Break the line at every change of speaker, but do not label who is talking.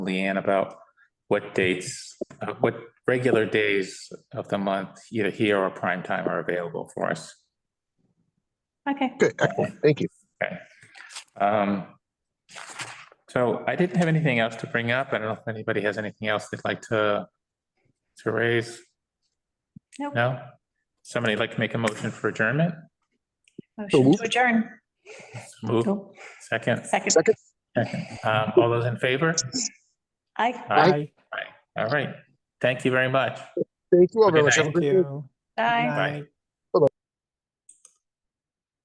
Leanne about what dates, uh, what regular days of the month, either here or prime time are available for us.
Okay,
Okay, excellent. Thank you.
Um, So I didn't have anything else to bring up. I don't know if anybody has anything else they'd like to, to raise?
Nope.
No? Somebody like to make a motion for adjournment?
motion
moved.
to adjourn.
Move,
Nope.
second.
Second,
Second,
Um, All those in favor?
aye.
Aye.
Aye. All right. Thank you very much.
thank you all very
Good
much. Have a
night.
great day.
you.
Aye.
Bye.